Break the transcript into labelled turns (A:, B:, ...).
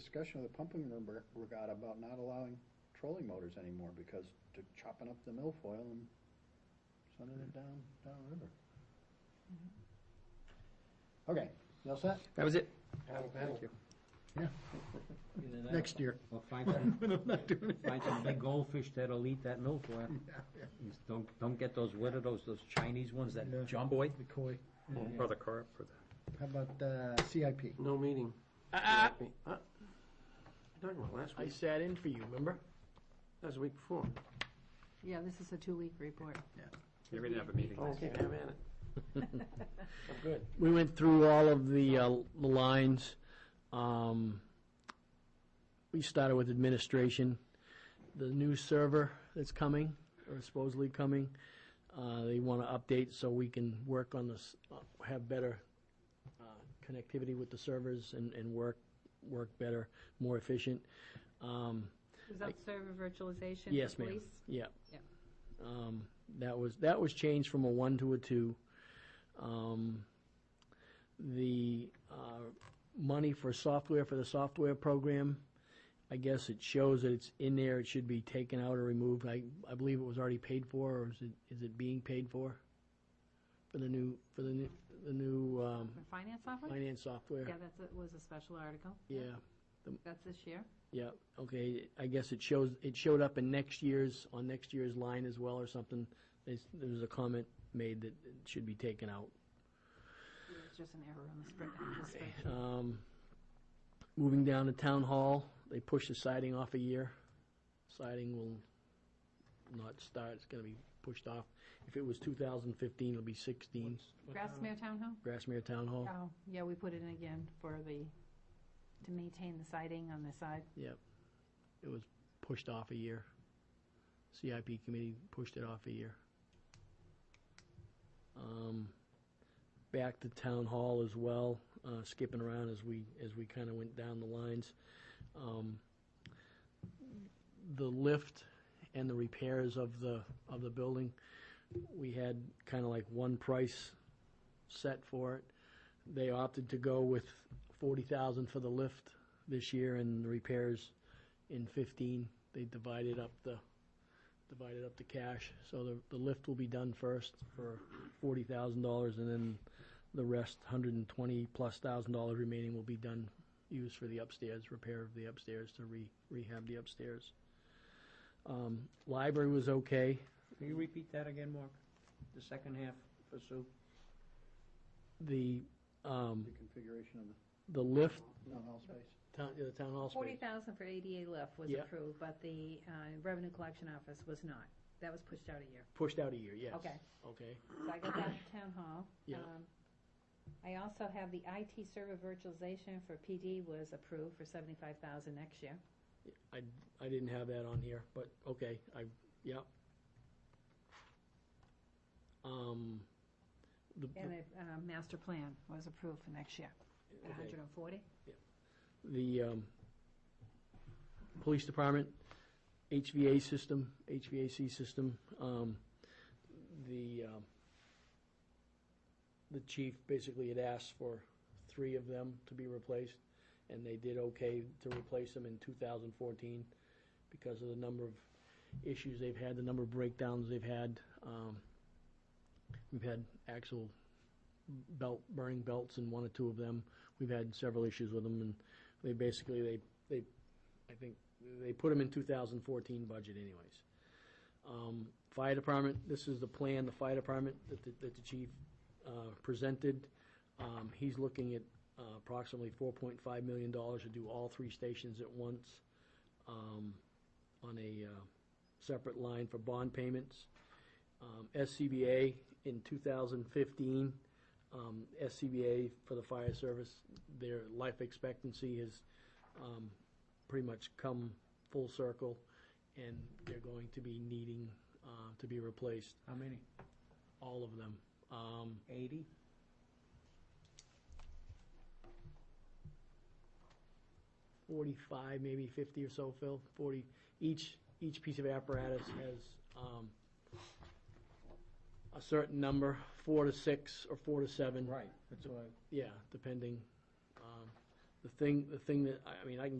A: discussion with the pumping room reg- regatta about not allowing trolling motors anymore because they're chopping up the milfoil and sending it down, downriver. Okay, you all set?
B: That was it.
A: Thank you.
C: Either that or
A: Next year.
C: Or find some,
A: When I'm not doing it.
C: find some big goldfish that'll eat that milfoil. Just Don't, don't get those, what are those, those Chinese ones that
D: Yeah.
C: jump?
B: Boy,
D: The koi.
B: or the carp, or the.
D: How about uh, CIP?
E: No meeting.
F: Uh,
E: Huh? Talking about last
F: I
E: week,
F: sat in for you, remember?
E: that was the week before.
G: Yeah, this is a two-week report.
B: We didn't have a meeting.
E: Oh, okay, I'm at it. I'm good.
F: We went through all of the uh, the lines. Um, We started with administration, the new server that's coming, or supposedly coming. uh, They want to update so we can work on this, uh, have better uh, connectivity with the servers and, and work, work better, more efficient. Um,
G: Was that server virtualization? for
F: Yes, ma'am.
G: police?
F: Yeah.
G: Yeah.
F: Um, that was, that was changed from a one to a two. Um, the, uh, money for software, for the software program, I guess it shows that it's in there, it should be taken out or removed. I, I believe it was already paid for, or is it, is it being paid for? For the new, for the new, the new, um,
G: For finance software?
F: finance software?
G: Yeah, that's, it was a special article.
F: Yeah.
G: That's this year.
F: Yeah, okay, I guess it shows, it showed up in next year's, on next year's line as well or something. There's- There was a comment made that it should be taken out.
G: It's just an error on the spread- the spreadsheet.
F: Um, Moving down to Town Hall, they pushed the siding off a year. Siding will not start, it's gonna be pushed off. If it was 2015, it'll be 16,
G: Grassmere Town Hall?
F: Grassmere Town Hall.
G: Oh, yeah, we put it in again for the, to maintain the siding on the side.
F: It was pushed off a year. CIP committee pushed it off a year. Um, back to town hall as well, uh, skipping around as we, as we kinda went down the lines. Um, the lift and the repairs of the, of the building, we had kinda like one price set for it. They opted to go with forty thousand for the lift this year and the repairs in fifteen, they divided up the, divided up the cash. So the, the lift will be done first for forty thousand dollars, and then the rest, hundred and twenty plus thousand dollars remaining will be done, used for the upstairs, repair of the upstairs, to re, rehab the upstairs. Um, library was okay.
C: Can you repeat that again, Mark? The second half for Sue?
F: The, um,
A: The configuration of the
F: the lift,
A: town hall space.
F: town, the town hall
G: Forty
F: space.
G: thousand for ADA lift was
F: Yeah.
G: approved, but the uh, revenue collection office was not. That was pushed out a year.
F: Pushed out a year, yes.
G: Okay.
F: Okay.
G: So I got that at town hall.
F: Yeah.
G: Um, I also have the IT server virtualization for PD was approved for seventy-five thousand next year.
F: I didn't have that on here, but okay, I, yeah. Um, the,
G: And the uh, master plan was approved for next year, at
F: okay.
G: hundred and forty.
F: the, um, police department, HVA system, HVAC system, um, the, um, the chief basically had asked for three of them to be replaced, and they did okay to replace them in two thousand fourteen because of the number of issues they've had, the number of breakdowns they've had. Um, we've had actual belt, burning belts in one or two of them. We've had several issues with them, and they basically, they, they, I think, they put them in two thousand fourteen budget anyways. Um, fire department, this is the plan, the fire department that, the- that the chief, uh, presented. Um, he's looking at uh, approximately four point five million dollars to do all three stations at once, um, on a, uh, separate line for bond payments. Um, SCBA in two thousand fifteen, um, SCBA for the fire service, their life expectancy has um, pretty much come full circle, and they're going to be needing uh, to be replaced,
C: How many?
F: all of them. Um,
C: Eighty?
F: Forty-five, maybe fifty or so, Phil, forty, each, each piece of apparatus has um, a certain number, four to six or four to seven.
C: Right, that's what I.
F: Yeah, depending. Um, The thing, the thing that, I I mean, I can get